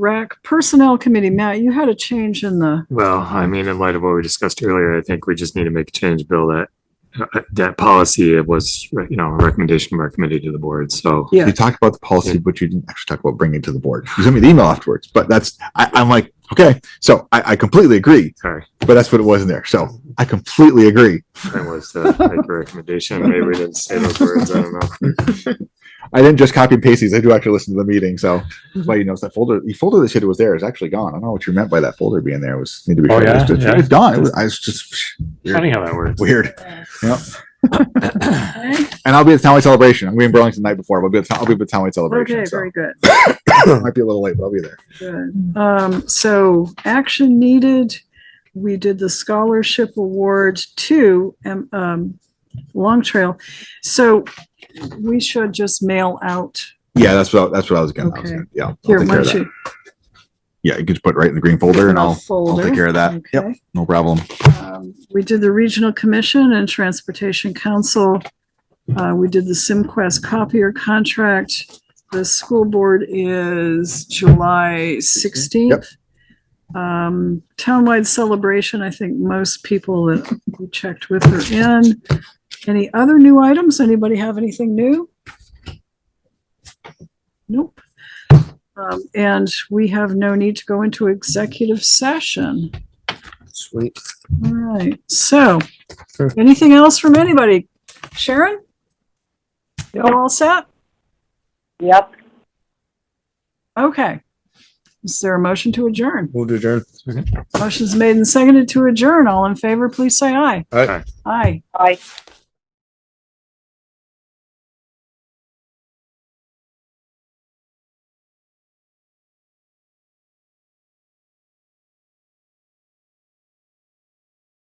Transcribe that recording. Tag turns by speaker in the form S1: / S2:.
S1: Rec Personnel Committee, Matt, you had a change in the,
S2: Well, I mean, in light of what we discussed earlier, I think we just need to make a change, Bill, that uh, that policy was, uh, you know, a recommendation by our committee to the board. So
S1: yeah,
S3: You talked about the policy,
S2: Yeah.
S3: but you didn't actually talk about bringing it to the board. You sent me the email afterwards, but that's, I, I'm like, okay, so I, I completely agree,
S2: sorry,
S3: but that's what it was in there. So I completely agree.
S2: that was the like, recommendation. Maybe we didn't say those words. I don't know.
S3: I didn't just copy and paste these. I do actually listen to the meeting. So that's
S2: Mm-hmm.
S3: why you notice that folder, the folder that said it was there is actually gone. I don't know what you meant by that folder being there. It was, need to be.
S2: Oh,
S3: sure. It was
S2: yeah,
S3: just-
S2: yeah.
S3: It's gone. It was, I was just
S2: Funny how that works.
S3: weird.
S1: okay,
S3: And I'll be at the townwide celebration. I'm going to be in Burlington the night before. I'll be at, the town- I'll be at the townwide celebration.
S1: okay,
S3: so
S1: very good,
S3: might be a little late, but I'll be there.
S1: good. Um, so action needed. We did the scholarship award to, um, um, Long Trail. So we should just mail out
S3: Yeah, that's what, that's what I was going
S1: Okay.
S3: to, yeah. I'll
S1: here,
S3: take care
S1: why
S3: of
S1: don't
S3: that.
S1: you?
S3: Yeah, you could just put it right in the green folder and I'll, I'll take care of that. Yep,
S1: Okay.
S3: no problem.
S1: Um, We did the Regional Commission and Transportation Council. Uh, we did the SimQuest copier contract. The school board is July
S3: Yep.
S1: sixteenth. Um, townwide celebration, I think most people that we checked with are in. Any other new items? Anybody have anything new? Nope. Um, and we have no need to go into executive session.
S4: Sweet.
S1: All right, so,
S4: Sure.
S1: anything else from anybody? Sharon? You all set?
S5: Yep.
S1: Okay. Is there a motion to adjourn?
S4: Move to adjourn.
S1: Motion's made and seconded to adjourn. All in favor, please say aye.
S4: Aye.
S1: Aye.
S5: Aye.